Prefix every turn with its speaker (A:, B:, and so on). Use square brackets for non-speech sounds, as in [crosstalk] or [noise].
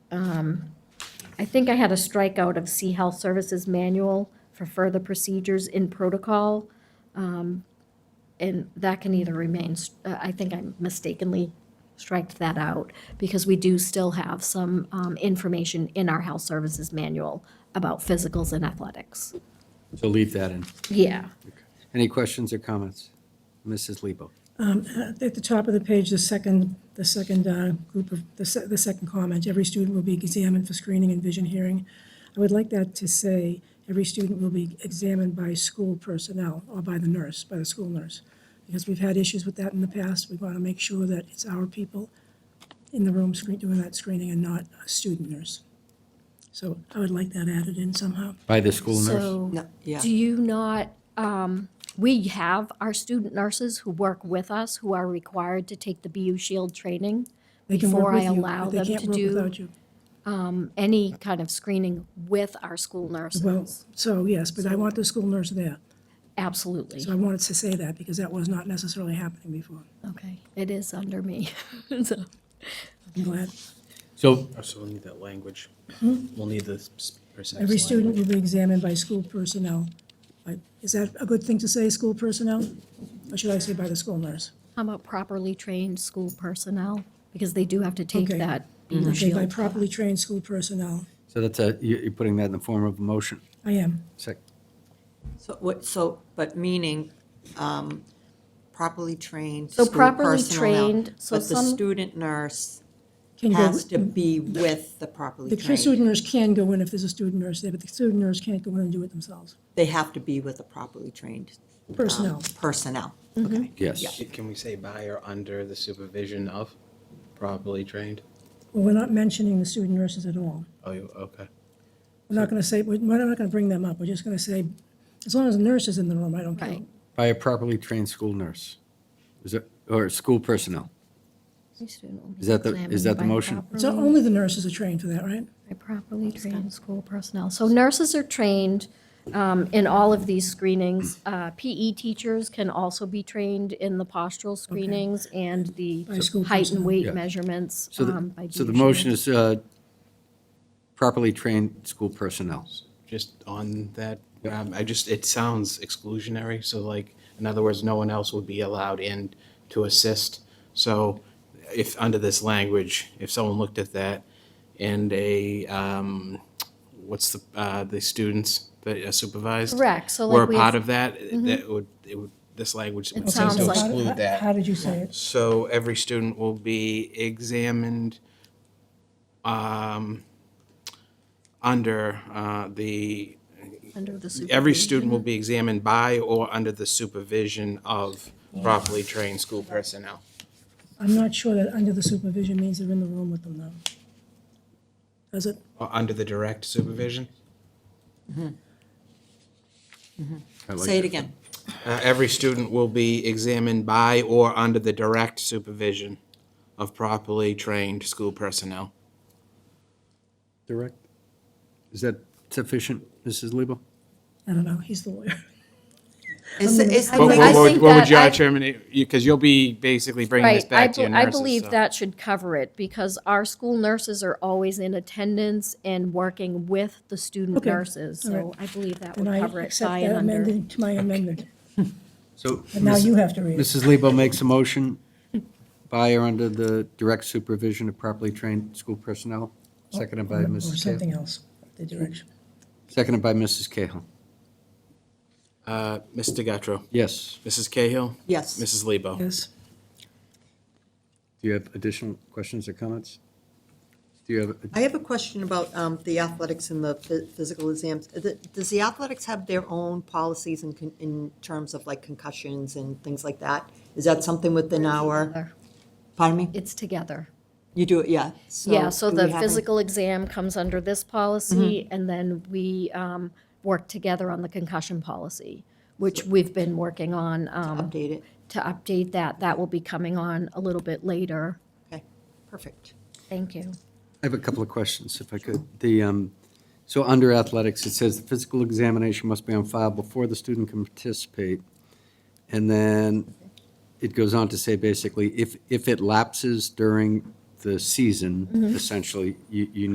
A: um, I think I had a strikeout of C Health Services Manual for further procedures in protocol. um, And that can either remain, s- uh, I think I mistakenly striked that out because we do still have some um, information in our Health Services Manual about physicals and athletics.
B: So leave that in.
A: Yeah.
B: Any questions or comments? Mrs. Lebo?
C: At the top of the page, the second, the second uh, group of, the se- the second comment, every student will be examined for screening and vision hearing. I would like that to say, every student will be examined by school personnel or by the nurse, by the school nurse. Because we've had issues with that in the past. We want to make sure that it's our people in the room screen, doing that screening and not a student nurse. So I would like that added in somehow.
B: By the school nurse?
A: So,
D: No, yeah.
A: do you not, um, we have our student nurses who work with us who are required to take the BU Shield training
C: They can
A: before
C: work
A: I
C: with you, but
A: allow them
C: They can't
A: to
C: work
A: do
C: without you.
A: any kind of screening with our school
C: Well,
A: nurses.
C: so yes, but I want the school nurse there.
A: Absolutely.
C: So I wanted to say that because that was not necessarily happening before.
A: Okay, it is under me. [laughs] So,
C: I'm glad.
B: So,
E: Oh, So we'll need that language. We'll need the s- precise
C: Hmm? Every student
E: language.
C: will be examined by school personnel. Like, Is that a good thing to say, school personnel? Or should I say by the school nurse?
A: How about properly trained school personnel? Because they do have to take
C: Okay.
A: that
B: Mm-hmm.
A: BU
C: Okay, by
A: Shield.
C: properly trained school personnel.
B: so that's a, you- you're putting that in the form of a motion.
C: I am.
B: Sec-
D: So what, so, but meaning um, properly trained
A: So
D: school
A: properly
D: personnel,
A: trained, so
D: But the
A: some-
D: student nurse
C: Can go-
D: has to be with the properly
C: The student
D: trained.
C: nurse can go in if there's a student nurse there, but the student nurse can't go in and do it themselves.
D: They have to be with the properly trained. um,
C: Personnel.
D: Personnel, okay.
B: Yes.
E: Can we say by or under the supervision of properly trained?
C: Well, we're not mentioning the student nurses at all.
E: Oh, you- okay.
C: We're not going to say, we're we're not going to bring them up. We're just going to say, as long as the nurse is in the room, I don't care.
A: Right.
B: By a properly trained school nurse. Is it, or school personnel? Is that the- is that the motion?
C: So
D: Mm-hmm.
C: only the nurses are trained for that, right?
A: By properly trained school personnel. So nurses are trained um, in all of these screenings. Uh, PE teachers can also be trained in the postural screenings and the
C: By school
A: height and
C: personnel.
A: weight
B: Yeah.
A: measurements.
B: So
A: um,
B: the,
A: by
B: so the
A: DHS.
B: motion is uh, properly trained school personnel.
E: Just on that, um, I just, it sounds exclusionary, so like, in other words, no one else would be allowed in to assist. So if, under this language, if someone looked at that and a, um, what's the, uh, the students that are supervised?
A: Correct, so like
E: Were a
A: we- Mm-hmm.
E: part of that, that would, it would, this language would seem
A: sounds
E: to
A: like-
E: exclude that.
C: How did you say it?
E: So every student will be examined um, under uh, the,
A: Under the supervision.
E: every student will be examined by or under the supervision of properly trained school personnel.
C: I'm not sure that under the supervision means they're in the room with them, though. Does it?
E: Or under the direct supervision?
B: I like
D: Say it
B: that.
D: again.
E: Uh, Every student will be examined by or under the direct supervision of properly trained school personnel.
B: Direct. Is that sufficient, Mrs. Lebo?
C: I don't know, he's the lawyer.
D: Is, is the
A: Well,
E: What
A: But
D: way
A: I
E: what
D: this-
E: would
A: think
E: what would
A: that
E: you,
A: I-
E: Chairman, because you'll be basically bringing this
A: Right, I,
E: back to your
A: be- I
E: nurses.
A: believe
E: so-
A: that should cover it because our school nurses are always in attendance and working with the student
C: Okay,
A: nurses.
C: all right.
A: So I believe that
C: And
A: would
C: I
A: cover it
C: accept
A: by and
C: that
A: under.
C: amended to my amendment.
B: So.
C: And now
B: Mrs.
C: you have to read it.
B: Mrs. Lebo makes a motion by or under the direct supervision of properly trained school personnel, seconded by
C: Oh, Or
B: Mrs.
C: something
B: Cahill.
C: else, the direction.
B: Seconded by Mrs. Cahill.
E: Uh, Mr. Gattro.
B: Yes.
E: Mrs. Cahill?
D: Yes.
E: Mrs. Lebo?
C: Yes,
B: Do you have additional questions or comments? Do you have,
D: I have a question about um, the athletics and the phy- physical exams. Is it- Does the athletics have their own policies in, con- in terms of like concussions and things like that? Is that something within our, pardon me?
A: It's together.
D: You do it, yeah.
E: Oh,
A: Yeah, so
D: do
A: the
D: we have any-
A: physical exam comes under this policy,
E: Mm-hmm.
A: and then we um, work together on the concussion policy, which we've been working on um,
D: Update it.
A: to update that. That will be coming on a little bit later.
D: Okay, perfect.
A: Thank you.
B: I have a couple of questions, if I could. The, um, so under athletics, it says the physical examination must be on file before the student can participate. And then it goes on to say basically, if, if it lapses during the season, essentially, you, you